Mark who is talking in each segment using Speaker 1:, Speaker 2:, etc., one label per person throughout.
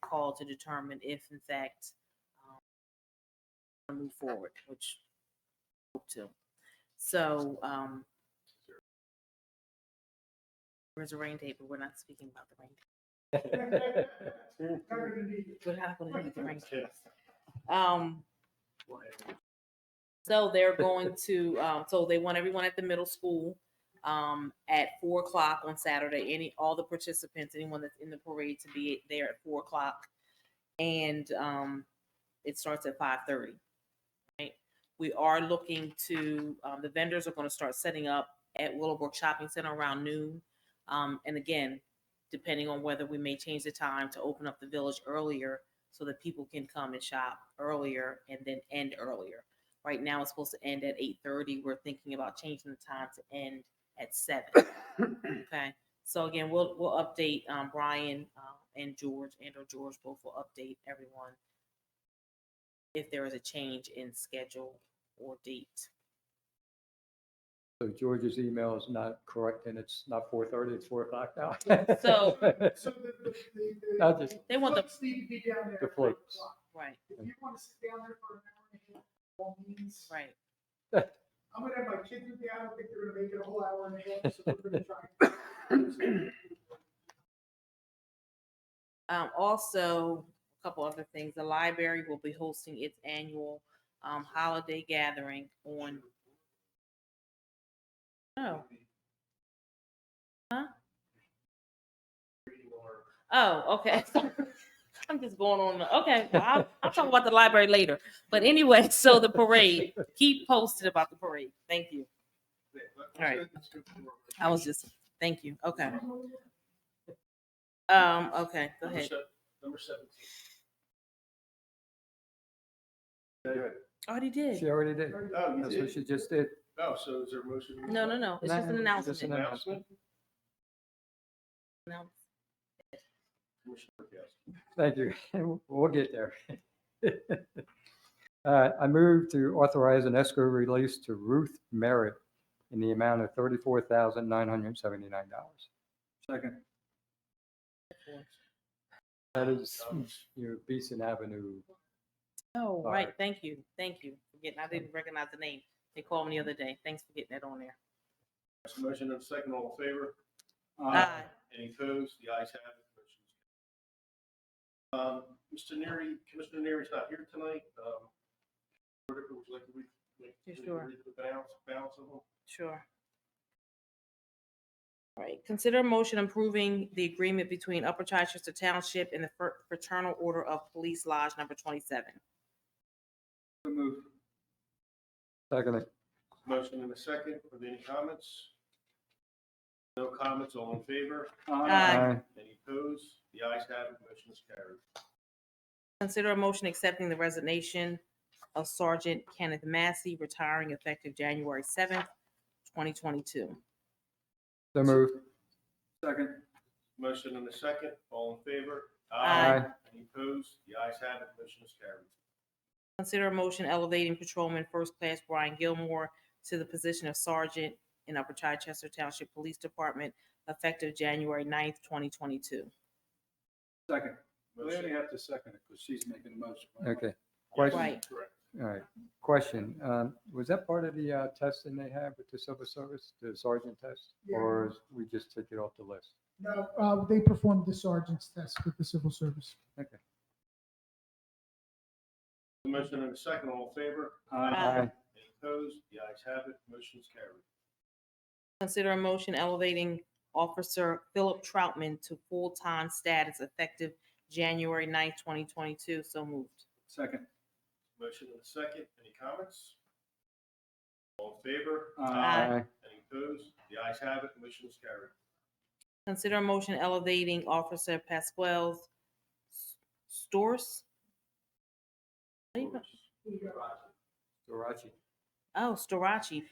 Speaker 1: call to determine if in fact um, wanna move forward, which hope to. So, um, where's the rain date? But we're not speaking about the rain. date. We're not going to need the rain. date. Um, so they're going to, um, so they want everyone at the middle school, um, at four o'clock on Saturday, any, all the participants, anyone that's in the parade to be there at four o'clock. And, um, it starts at five thirty. Right? We are looking to, um, the vendors are gonna start setting up at Willowbrook Shopping Center around noon. Um, and again, depending on whether we may change the time to open up the village earlier so that people can come and shop earlier and then end earlier. Right now, it's supposed to end at eight thirty. We're thinking about changing the time to end at seven. Okay, so again, we'll, we'll update, um, Brian, uh, and George, and or George both will update everyone if there is a change in schedule or date.
Speaker 2: So George's email is not correct and it's not four thirty, it's four o'clock now.
Speaker 1: So-
Speaker 3: So the, the, the.
Speaker 2: Not just-
Speaker 1: They want the-
Speaker 3: floats Need to be down there.
Speaker 2: The
Speaker 3: at five
Speaker 2: floats.
Speaker 3: o'clock.
Speaker 1: Right,
Speaker 3: If you want to sit down there for an hour and a half, all means.
Speaker 1: right.
Speaker 3: I'm gonna have my kids with me. I don't think they're gonna make it a whole hour and a half, so we're gonna try.
Speaker 1: Um, also, a couple other things, the library will be hosting its annual, um, holiday gathering on. Oh. Huh? Oh, okay. Sorry. I'm just going on, the- okay, well, I'll, I'll talk about the library later, but anyway, so the parade, keep posted about the parade, thank you. All right. I was just, thank you, okay. Um, okay, go ahead.
Speaker 4: Number seventeen.
Speaker 1: Already did.
Speaker 2: She already did.
Speaker 4: Oh,
Speaker 2: That's
Speaker 4: you
Speaker 2: what
Speaker 4: did?
Speaker 2: she just did.
Speaker 4: Oh, so is there a motion?
Speaker 1: No, no, no. It's
Speaker 2: No,
Speaker 1: just an
Speaker 2: it's just
Speaker 1: announcement.
Speaker 2: an-
Speaker 4: Announcement?
Speaker 1: No.
Speaker 4: Commissioner Castro.
Speaker 2: Thank you. We'll get there. Uh, I move to authorize an escrow release to Ruth Merritt in the amount of thirty-four thousand nine hundred seventy-nine dollars. Second. That is your Beeson Avenue.
Speaker 1: Oh,
Speaker 2: All
Speaker 1: right.
Speaker 2: right.
Speaker 1: Thank you. Thank you. for Getting, I didn't recognize the name. They called me the other day. Thanks for getting that on there.
Speaker 4: There's a Motion and a second, all in favor?
Speaker 3: Uh,
Speaker 1: Aye.
Speaker 4: Any opposed? The ayes have it. Motion is carried. Um, Mr. Neary, Commissioner Neary's not here tonight. Um, Would you like to read? read-
Speaker 1: Yes,
Speaker 4: read
Speaker 1: sure.
Speaker 4: The balance, balance of them?
Speaker 1: Sure. All right. Consider a motion approving the agreement between Upper Chichester Township and the Fr- Fraternal Order of Police Lodge Number 27.
Speaker 2: Secondly,
Speaker 4: Motion and a second. Are there any comments? No comments, all in favor?
Speaker 1: Aye.
Speaker 2: aye.
Speaker 4: Any opposed? The ayes have it. Motion is carried.
Speaker 1: Consider a motion accepting the resignation of Sergeant Kenneth Massey, retiring effective January 7th, 2022.
Speaker 2: So moved.
Speaker 4: Motion and a second, all in favor?
Speaker 1: Aye.
Speaker 2: Aye.
Speaker 4: Any opposed? The ayes have it, motion is carried.
Speaker 1: Consider a motion elevating Patrolman First Class Brian Gilmore to the position of Sergeant in Upper Chichester Township Police Department effective January 9th, twenty twenty-two.
Speaker 5: Second. Well, They
Speaker 4: Motion-
Speaker 5: only have to second it because she's making the motion. right?
Speaker 2: Okay,
Speaker 4: Yes,
Speaker 1: Right.
Speaker 4: Correct.
Speaker 2: all right. Question, um, was that part of the uh, testing they have with the civil service, the sergeant test?
Speaker 3: Yeah.
Speaker 2: Or is- we just took it off the list?
Speaker 3: No, uh, they performed the sergeant's test with the civil service.
Speaker 4: Motion and a second, all in favor?
Speaker 1: Aye.
Speaker 4: Any opposed? The ayes have it, motion is carried.
Speaker 1: Consider a motion elevating Officer Philip Troutman to full-time status effective January 9th, twenty twenty-two. So moved.
Speaker 5: Second.
Speaker 4: Motion and a second, any comments? All in favor?
Speaker 1: Aye.
Speaker 4: Any opposed? The ayes have it, motion is carried.
Speaker 1: Consider a motion elevating Officer Pasquale Stores?
Speaker 2: Sorachi.
Speaker 1: Oh, Storaci.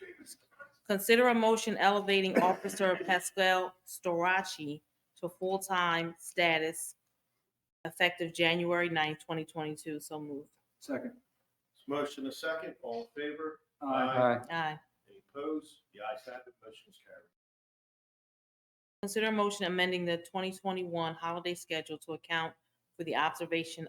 Speaker 1: Consider a motion elevating Officer Pascal Storaci to full-time status effective January 9th, twenty twenty-two. So moved.
Speaker 5: Second.
Speaker 4: Motion and a second, all in favor?
Speaker 2: Aye.
Speaker 1: Aye.
Speaker 4: Any opposed? The ayes have it, motion is carried.
Speaker 1: Consider a motion amending the twenty twenty-one holiday schedule to account for the observation